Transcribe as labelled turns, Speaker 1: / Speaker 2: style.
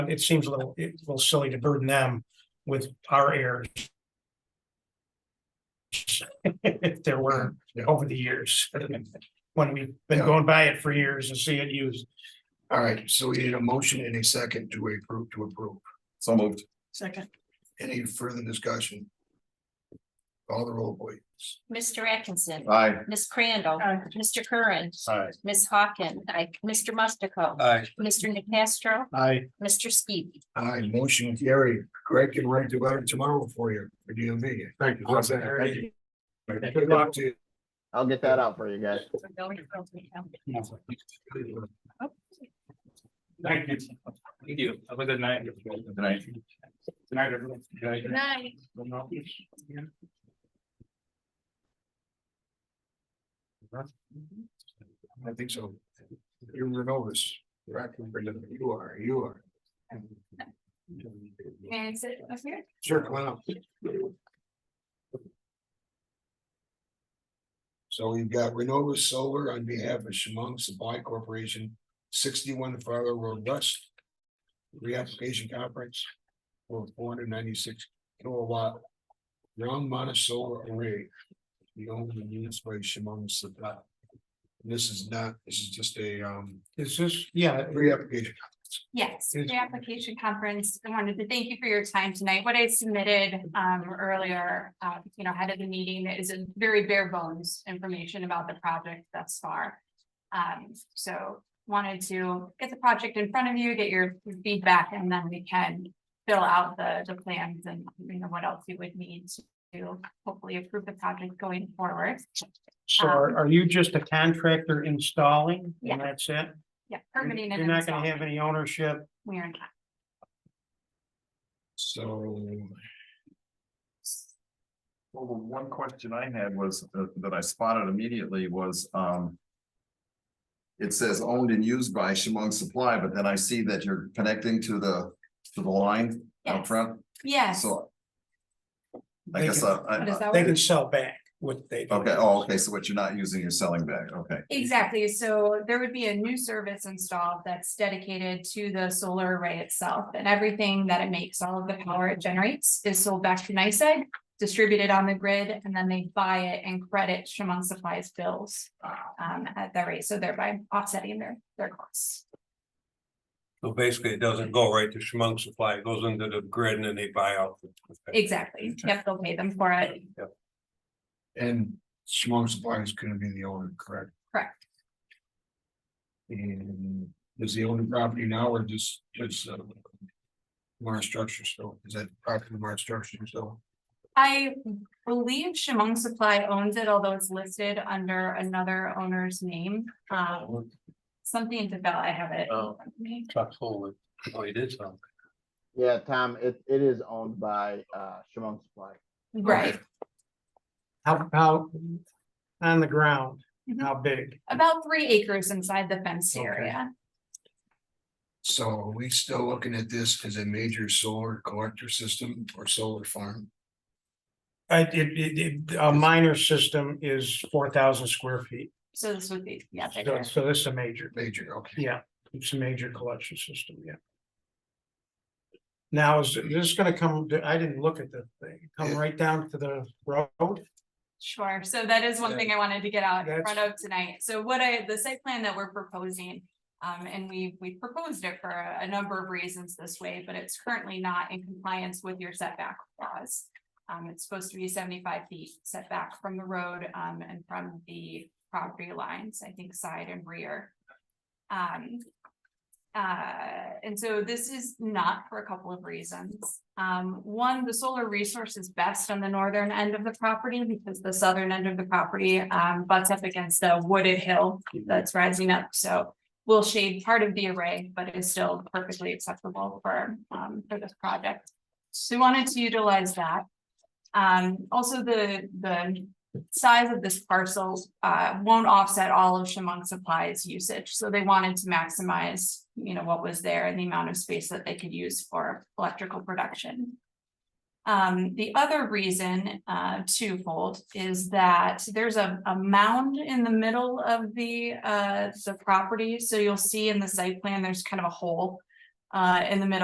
Speaker 1: it seems a little, it's a little silly to burden them with our errors. If there were
Speaker 2: Yeah.
Speaker 1: over the years, when we've been going by it for years and see it used.
Speaker 2: All right, so we need a motion and a second to approve, to approve.
Speaker 3: So moved.
Speaker 4: Second.
Speaker 2: Any further discussion? Call the roll, please.
Speaker 5: Mr. Atkinson,
Speaker 3: Aye.
Speaker 5: Miss Crandall,
Speaker 4: Aye.
Speaker 5: Mr. Curran,
Speaker 3: Aye.
Speaker 5: Miss Hawken, I, Mr. Mustico,
Speaker 3: Aye.
Speaker 5: Mr. Nacastro,
Speaker 3: Aye.
Speaker 5: Mr. Skibby.
Speaker 2: Aye, motion carried. Greg can write the letter tomorrow for you, for DMV.
Speaker 3: Thank
Speaker 2: you. Awesome. Thank you. Good luck to
Speaker 6: I'll get that out for you guys.
Speaker 2: you.
Speaker 1: Thank you. Thank you. Have a good night. Good
Speaker 3: night.
Speaker 1: night, everyone.
Speaker 5: night.
Speaker 2: I think so. You're the novice. correct? You are, you are.
Speaker 5: And sit up here.
Speaker 2: Sure, come on up. So we've got Renova Solar on behalf of Shimong Supply Corporation, sixty-one Farther Road West. Reapplication conference for four hundred ninety-six kilowatt. Ground mounted solar array. The only used by Shimong Supply. This is not, this is just a um
Speaker 1: Is this, yeah,
Speaker 2: reapplication.
Speaker 7: Yes,
Speaker 1: Yes.
Speaker 7: the application conference, I wanted to thank you for your time tonight. What I submitted um earlier, uh, you know, ahead of the meeting is a very bare bones information about the project thus far. Um, so wanted to get the project in front of you, get your feedback, and then we can fill out the the plans and, you know, what else you would need to hopefully approve the project going forward.
Speaker 1: so are, are you just a contractor installing
Speaker 7: Um, Yeah.
Speaker 1: and that's it?
Speaker 7: Yeah,
Speaker 1: You're
Speaker 7: permitting and
Speaker 1: you're not gonna have
Speaker 7: installing.
Speaker 1: any ownership.
Speaker 7: We are not.
Speaker 2: So
Speaker 3: Well, the one question I had was, uh, that I spotted immediately was, um. It says owned and used by Shimong Supply, but then I see that you're connecting to the, to the line out
Speaker 7: Yes.
Speaker 3: front,
Speaker 7: Yes.
Speaker 3: so. I
Speaker 1: They
Speaker 3: guess
Speaker 1: can-
Speaker 3: I, I,
Speaker 7: Does that
Speaker 1: They
Speaker 7: work?
Speaker 1: can sell back what they. do.
Speaker 3: okay, oh, okay, so what you're not using, you're selling back, okay.
Speaker 7: Exactly, so there would be a new service installed that's dedicated to the solar array itself and everything that it makes, all of the power it generates is sold back to NICEAG. Distributed on the grid and then they buy it and credit Shimon Supplies bills um at that rate, so thereby offsetting their their costs.
Speaker 8: So basically, it doesn't go right to Schmunk Supply, it goes into the grid and then they buy out. the-
Speaker 7: Exactly, yep, they'll pay them for it,
Speaker 2: And Shimon Supply is gonna be the owner, correct?
Speaker 7: Correct.
Speaker 2: And is the owner property now or just, just uh. Mars structure still, is that property Mars structure still?
Speaker 7: I believe Shimon Supply owns it, although it's listed under another owner's name. Um, something to fill, I have it. in
Speaker 8: Oh.
Speaker 7: front of me.
Speaker 8: Chuck Fuller, oh, he did something.
Speaker 6: Yeah, Tom, it, it is owned by, uh, Shimon Supply.
Speaker 7: Right,
Speaker 1: How, how, on the ground,
Speaker 7: Mhm.
Speaker 1: how big?
Speaker 7: About three acres inside the fenced
Speaker 1: Okay.
Speaker 7: area.
Speaker 2: So are we still looking at this as a major solar collector system or solar farm?
Speaker 1: I, Uh, it, it, it- a minor system is four thousand square feet,
Speaker 7: So this would be, yeah,
Speaker 1: so,
Speaker 7: bigger.
Speaker 1: so this is a major,
Speaker 2: Major, okay,
Speaker 1: yeah, it's a major collection system, yeah. Now, is this gonna come, I didn't look at the thing, come
Speaker 2: Yeah.
Speaker 1: right down to the road?
Speaker 7: Sure. So that is one thing I wanted to get out in
Speaker 1: That's-
Speaker 7: front of tonight. So what I, the site plan that we're proposing. Um, and we, we proposed it for a a number of reasons this way, but it's currently not in compliance with your setback laws. Um, it's supposed to be seventy-five feet setback from the road, um, and from the property lines, I think side and rear. Um, Uh, and so this is not for a couple of reasons. Um, one, the solar resource is best on the northern end of the property because the southern end of the property um butts up against a wooded hill that's rising up, so we'll shade part of the array, but is still perfectly acceptable for um for this project. So we wanted to utilize that. Um, also the the size of this parcel uh won't offset all of Shimong Supply's usage, so they wanted to maximize, you know, what was there and the amount of space that they could use for electrical production. Um, the other reason uh twofold is that there's a a mound in the middle of the uh the property, so you'll see in the site plan, there's kind of a hole uh in the middle.